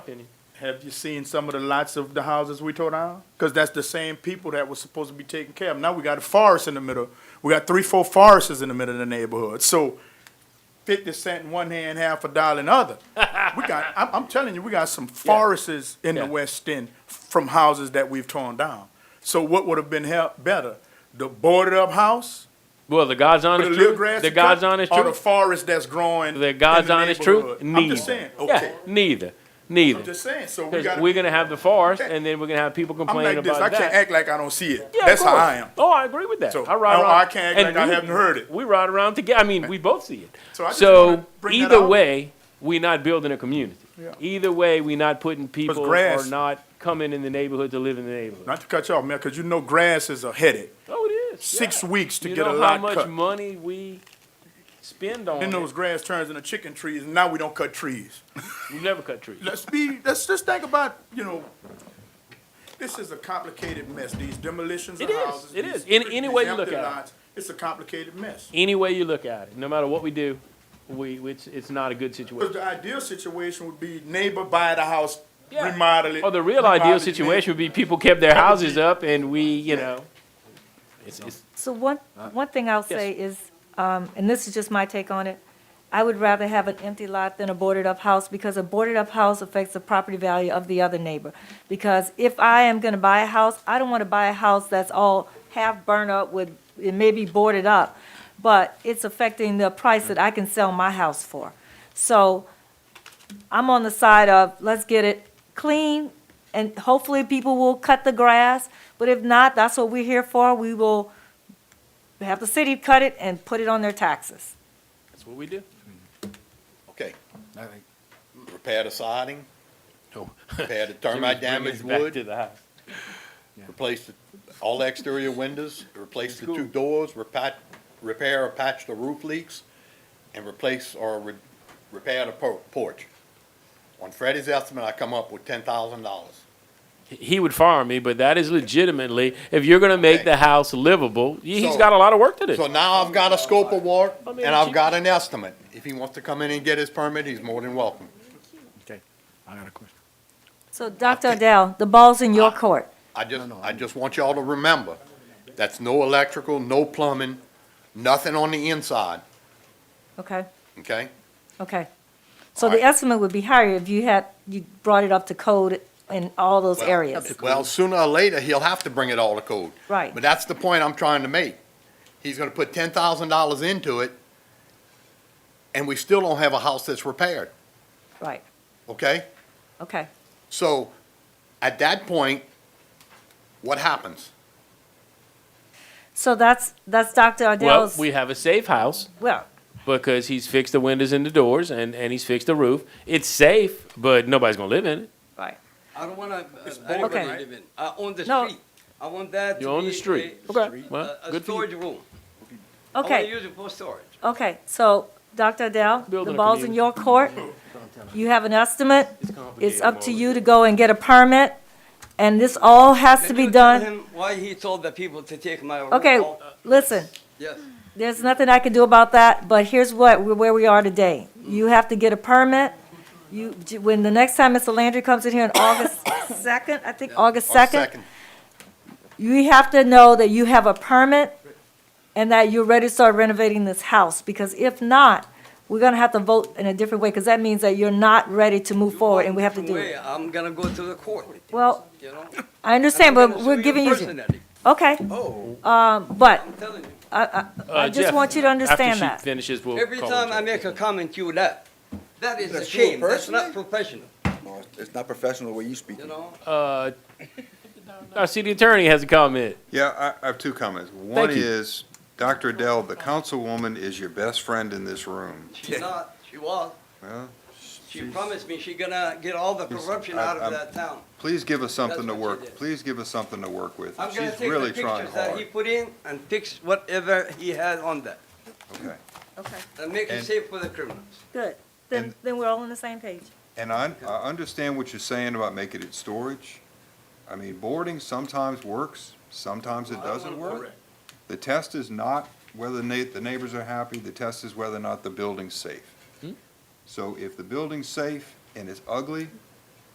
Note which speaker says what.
Speaker 1: opinion. Have you seen some of the lots of the houses we tore down? Because that's the same people that was supposed to be taken care of. Now we got a forest in the middle. We got three, four forests in the middle of the neighborhood. So fifty cent in one hand, half a dollar in the other. We got, I'm, I'm telling you, we got some forests in the
Speaker 2: Yeah.
Speaker 1: West End from houses that we've torn down. So what would have been hel- better? The boarded up house?
Speaker 2: Well, the God's
Speaker 1: with
Speaker 2: honest
Speaker 1: the little
Speaker 2: truth.
Speaker 1: grass
Speaker 2: The
Speaker 1: to
Speaker 2: God's
Speaker 1: cut,
Speaker 2: honest
Speaker 1: Or the
Speaker 2: truth.
Speaker 1: forest that's growing?
Speaker 2: The God's
Speaker 1: in the
Speaker 2: honest truth.
Speaker 1: neighborhood?
Speaker 2: Neither.
Speaker 1: I'm just saying,
Speaker 2: Yeah,
Speaker 1: okay.
Speaker 2: neither.
Speaker 1: I'm
Speaker 2: Neither.
Speaker 1: just saying, so we
Speaker 2: Because
Speaker 1: gotta.
Speaker 2: we're gonna have the forest,
Speaker 1: Okay.
Speaker 2: and then we're gonna have people
Speaker 1: I'm
Speaker 2: complaining
Speaker 1: like this. I
Speaker 2: about
Speaker 1: can't
Speaker 2: that.
Speaker 1: act like I don't see it.
Speaker 2: Yeah, of
Speaker 1: That's how
Speaker 2: course.
Speaker 1: I am.
Speaker 2: Oh, I agree with that.
Speaker 1: So, oh,
Speaker 2: I ride
Speaker 1: I-
Speaker 2: around.
Speaker 1: I can't act
Speaker 2: and
Speaker 1: like I
Speaker 2: we-
Speaker 1: haven't heard it.
Speaker 2: We ride around together. I mean, we both see it.
Speaker 1: So I just wanna
Speaker 2: So
Speaker 1: bring that
Speaker 2: either
Speaker 1: out.
Speaker 2: way, we're not building a community.
Speaker 1: Yeah.
Speaker 2: Either way, we're not putting people or
Speaker 1: grass-
Speaker 2: not coming in the neighborhood to live in the nadabohood.
Speaker 1: Not to cut you off, man, because you know grass is a headache.
Speaker 2: Oh, it is.
Speaker 1: Six
Speaker 2: yeah.
Speaker 1: weeks to
Speaker 2: You
Speaker 1: get a
Speaker 2: know how
Speaker 1: lot
Speaker 2: much
Speaker 1: cut.
Speaker 2: money we spend on
Speaker 1: Then
Speaker 2: it.
Speaker 1: those grass turns into chicken trees, and now we don't cut trees.
Speaker 2: We never cut trees.
Speaker 1: Let's be, let's just think about, you know, this is a complicated mess, these demolitions of
Speaker 2: It is,
Speaker 1: houses.
Speaker 2: it
Speaker 1: these-
Speaker 2: is. Any- any
Speaker 1: these
Speaker 2: way you look
Speaker 1: empty
Speaker 2: at it.
Speaker 1: lots, It's a complicated mess.
Speaker 2: Any way you look at it, no matter what we do, we it's it's not a good
Speaker 1: Because
Speaker 2: situation.
Speaker 1: the ideal situation would be neighbor buy the house,
Speaker 2: Yeah.
Speaker 1: remodel it.
Speaker 2: Or the real
Speaker 1: remodel
Speaker 2: ideal
Speaker 1: it,
Speaker 2: situation would be people kept their houses up and we, you know, it's, it's
Speaker 3: So one, one thing I'll say is, um, and this is just my take on it, I would rather have an empty lot than a boarded-up house, because a boarded-up house affects the property value of the other neighbor. Because if I am gonna buy a house, I don't wanna buy a house that's all half burned up with, it may be boarded up, but it's affecting the price that I can sell my house for. So I'm on the side of, let's get it clean, and hopefully people will cut the grass, but if not, that's what we're here for, we will have the city cut it and put it on their taxes.
Speaker 2: that's what we do.
Speaker 4: Okay. Repair the siding. Repair the
Speaker 2: Jimmy's
Speaker 4: termite
Speaker 2: bringing
Speaker 4: damaged
Speaker 2: us back To
Speaker 4: wood,
Speaker 2: the house.
Speaker 4: replace the, all the exterior windows, replace the two doors, repat, repair or patch the roof leaks, and replace or re- repair the por- porch. On Freddie's estimate, I come up with ten thousand dollars.
Speaker 2: He would fire me, but that is legitimately, if you're gonna make
Speaker 4: Okay.
Speaker 2: the house livable, he- he's
Speaker 4: So-
Speaker 2: got a lot of work to
Speaker 4: So
Speaker 2: do.
Speaker 4: now I've got a scope of work,
Speaker 2: I mean,
Speaker 4: and I've
Speaker 2: you-
Speaker 4: got an estimate. If he wants to come in and get his permit, he's more than welcome.
Speaker 5: I got a question.
Speaker 3: So, Dr. Adele, the ball's in your court.
Speaker 4: I just, I just want y'all to remember, that's no electrical, no plumbing, nothing on the inside,
Speaker 3: Okay,
Speaker 4: okay?
Speaker 3: okay. So
Speaker 4: All right.
Speaker 3: the estimate would be higher if you had, you brought it up to code in all those
Speaker 4: Well,
Speaker 3: areas.
Speaker 4: Well, sooner or later, he'll have to bring it all to code.
Speaker 3: Right.
Speaker 4: But that's the point I'm trying to make. He's gonna put ten thousand dollars into it, and we still don't have a house that's repaired,
Speaker 3: Right,
Speaker 4: okay?
Speaker 3: okay.
Speaker 4: So, at that point, what happens?
Speaker 3: So that's, that's Dr.
Speaker 2: Well,
Speaker 3: Adele's,
Speaker 2: we have a safe house.
Speaker 3: well,
Speaker 2: because he's fixed the windows and the doors and, and he's fixed the roof. It's safe, but nobody's gonna live in it.
Speaker 3: right.
Speaker 6: I don't want to. I
Speaker 3: boring.
Speaker 6: don't want
Speaker 3: Okay.
Speaker 6: to live in. I own the
Speaker 3: No.
Speaker 6: street. I want that. to
Speaker 2: You're on the
Speaker 6: be
Speaker 2: street.
Speaker 6: a-
Speaker 2: Okay.
Speaker 6: a-
Speaker 2: Well,
Speaker 6: a,
Speaker 2: good for you.
Speaker 6: storage room. I want to
Speaker 3: Okay,
Speaker 6: use it for storage.
Speaker 3: okay, so, Dr. Adele, the
Speaker 2: Building a
Speaker 3: ball's in
Speaker 2: community.
Speaker 3: your court. You have an estimate.
Speaker 2: complicated,
Speaker 3: It's up to you to go and get a permit, and this all has to
Speaker 6: Can
Speaker 3: be
Speaker 6: you tell
Speaker 3: done.
Speaker 6: him why he told the people to take my room?
Speaker 3: Okay,
Speaker 6: off?
Speaker 3: listen,
Speaker 6: Yes.
Speaker 3: There's nothing I can do about that, but here's what, where we are today. You have to get a permit. You, when the next time Mr. Landry comes in here on August 2nd, I think, August
Speaker 4: Or
Speaker 3: 2nd, you have to know that you have a permit and that you're ready to start renovating this house, because if not, we're gonna have to vote in a different way, because that means that you're not ready to move
Speaker 6: You
Speaker 3: forward
Speaker 6: go
Speaker 3: and we have to
Speaker 6: your
Speaker 3: do
Speaker 6: way,
Speaker 3: it.
Speaker 6: I'm gonna go to the court.
Speaker 3: Well,
Speaker 6: You know.
Speaker 3: I understand,
Speaker 6: I'm gonna
Speaker 3: but
Speaker 6: sue
Speaker 3: we're giving you,
Speaker 6: Personally.
Speaker 3: okay,
Speaker 6: Oh,
Speaker 3: um, but
Speaker 6: I'm telling you.
Speaker 3: I, I, I
Speaker 2: Uh,
Speaker 3: just
Speaker 2: Jeff,
Speaker 3: want you to understand
Speaker 2: After she
Speaker 3: that.
Speaker 2: finishes, we'll
Speaker 6: Every
Speaker 2: call
Speaker 6: time
Speaker 2: her.
Speaker 6: I make a comment, you laugh. That is a
Speaker 7: That's you
Speaker 6: shame. That's not
Speaker 7: personally?
Speaker 6: professional.
Speaker 7: No, it's not professional the way you speak.
Speaker 6: You know.
Speaker 2: Uh, our city attorney has a comment.
Speaker 8: Yeah, I, I have two comments. One
Speaker 2: Thank you.
Speaker 8: is, Dr. Adele, the councilwoman is your best friend in this room.
Speaker 6: She's not. She was.
Speaker 8: Well,
Speaker 6: She promised me she gonna get all the corruption
Speaker 8: I-
Speaker 6: out of
Speaker 8: I'm-
Speaker 6: that town.
Speaker 8: please give us something to
Speaker 6: That's what she
Speaker 8: work,
Speaker 6: did.
Speaker 8: please give us something to work with.
Speaker 6: I'm gonna
Speaker 8: She's
Speaker 6: take the
Speaker 8: really trying
Speaker 6: pictures that he
Speaker 8: hard.
Speaker 6: put in and fix whatever he had on that,
Speaker 8: Okay.
Speaker 3: Okay,
Speaker 6: and make it
Speaker 8: And-
Speaker 6: safe for the criminals.
Speaker 3: good. Then,
Speaker 8: And-
Speaker 3: then we're all on the same page.
Speaker 8: And I, I understand what you're saying about making it storage. I mean, boarding sometimes works, sometimes it
Speaker 6: I don't
Speaker 8: doesn't
Speaker 6: wanna-
Speaker 8: work. The test is not whether na- the neighbors are happy, the
Speaker 6: Hmm?
Speaker 8: test is whether or not the building's safe. So if the building's safe and it's ugly,